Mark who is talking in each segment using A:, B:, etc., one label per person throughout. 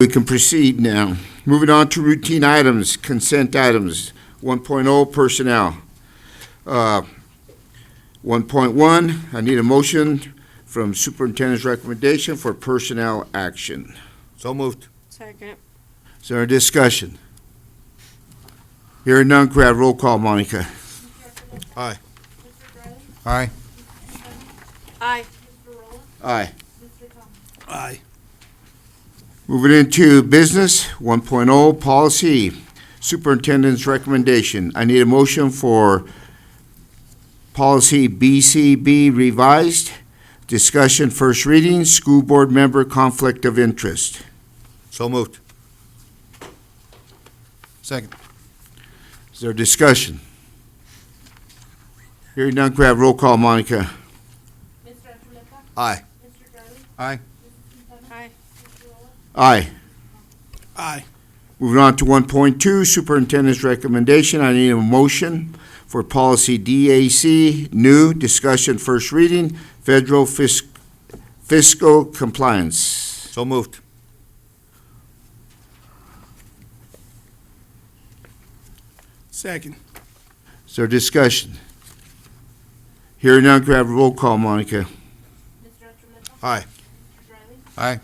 A: We can proceed now. Moving on to routine items, consent items. 1.0 personnel. Uh, 1.1, I need a motion from superintendent's recommendation for personnel action.
B: So moved.
C: Second.
A: Is there a discussion? Hearing none, could I have roll call, Monica?
B: Aye.
A: Aye.
C: Aye.
A: Aye.
B: Aye.
A: Moving into business, 1.0, policy, superintendent's recommendation. I need a motion for policy BCB revised, discussion first reading, school board member conflict of interest.
B: So moved. Second.
A: Is there discussion? Hearing none, could I have roll call, Monica?
D: Mr. Achuleta?
B: Aye.
D: Mr. Gurley?
B: Aye.
C: Aye.
A: Aye.
B: Aye.
A: Moving on to 1.2, superintendent's recommendation. I need a motion for policy DAC, new, discussion first reading, federal fisc- fiscal compliance.
B: So moved.
E: Second.
A: Is there discussion? Hearing none, could I have a roll call, Monica?
D: Mr. Achuleta?
B: Aye.
D: Mr. Gurley?
B: Aye.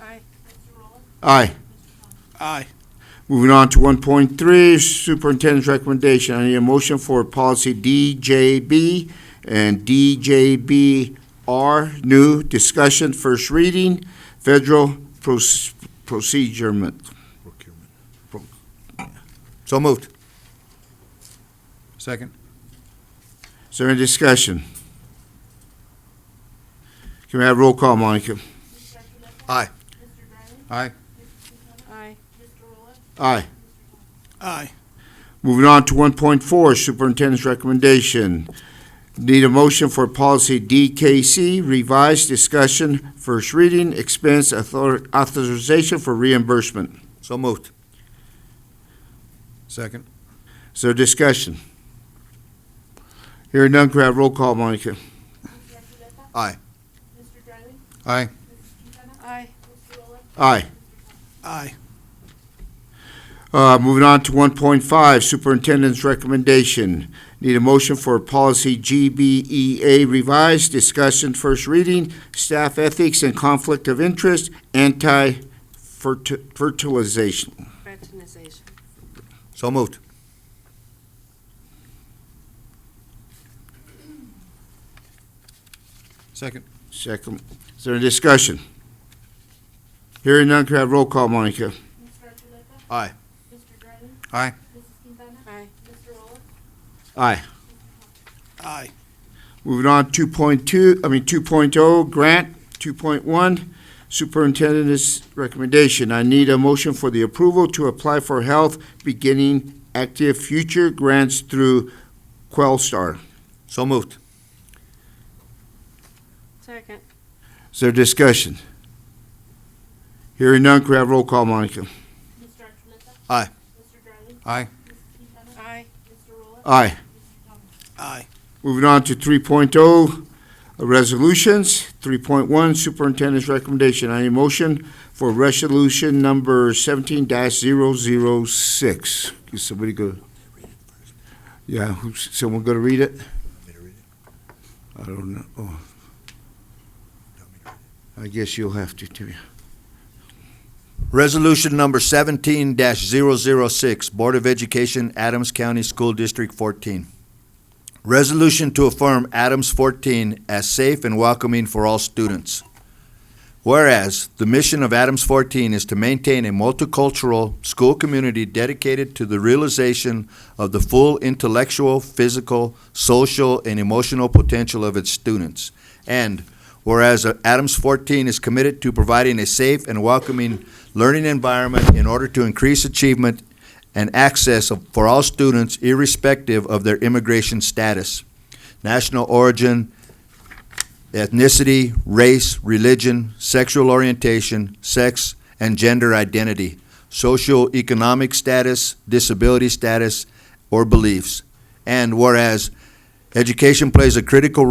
C: Aye.
D: Mr. Rolla?
A: Aye.
E: Aye.
A: Moving on to 1.3, superintendent's recommendation. I need a motion for policy DJB and DJBR, new, discussion first reading, federal proce- procedurement.
B: Procurement. So moved. Second.
A: Is there any discussion? Can we have roll call, Monica?
D: Mr. Achuleta?
B: Aye.
D: Mr. Gurley?
B: Aye.
C: Aye.
D: Mr. Rolla?
A: Aye.
E: Aye.
A: Moving on to 1.4, superintendent's recommendation. Need a motion for policy DKC, revised discussion, first reading, expense author- authorization for reimbursement.
B: So moved. Second.
A: Is there discussion? Hearing none, could I have roll call, Monica?
D: Mr. Achuleta?
B: Aye.
D: Mr. Gurley?
B: Aye.
D: Mrs. Quintana?
C: Aye.
D: Mr. Rolla?
A: Aye.
E: Aye.
A: Uh, moving on to one point five, superintendent's recommendation. Need a motion for policy GBEA revised, discussion first reading, staff ethics and conflict of interest, anti-fertilization.
C: Fraternization.
B: So moved. Second.
A: Second, is there a discussion? Hearing none, could I have roll call, Monica?
D: Mr. Achuleta?
B: Aye.
D: Mr. Gurley?
B: Aye.
D: Mrs. Quintana?
C: Aye.
D: Mr. Rolla?
A: Aye.
E: Aye.
A: Moving on, two point two, I mean, two oh, grant, two point one, superintendent's recommendation. I need a motion for the approval to apply for health beginning active future grants through Quellstar.
B: So moved.
C: Second.
A: Is there discussion? Hearing none, could I have roll call, Monica?
D: Mr. Achuleta?
B: Aye.
D: Mr. Gurley?
B: Aye.
D: Mrs. Quintana?
C: Aye.
D: Mr. Rolla?
A: Aye.
D: Mr. Thomas?
E: Aye.
A: Moving on to three oh, resolutions. Three point one, superintendent's recommendation. I need a motion for resolution number seventeen 6 Is somebody go? Yeah, who's, someone gonna read it? I don't know. Oh, I guess you'll have to, too.
B: Resolution number seventeen 6 Board of Education, Adams County School District fourteen. Resolution to affirm Adams fourteen as safe and welcoming for all students. Whereas, the mission of Adams fourteen is to maintain a multicultural school community dedicated to the realization of the full intellectual, physical, social, and emotional potential of its students. And whereas uh, Adams fourteen is committed to providing a safe and welcoming learning environment in order to increase achievement and access of- for all students irrespective of their immigration status, national origin, ethnicity, race, religion, sexual orientation, sex and gender identity, socioeconomic status, disability status, or beliefs. And whereas education plays a critical role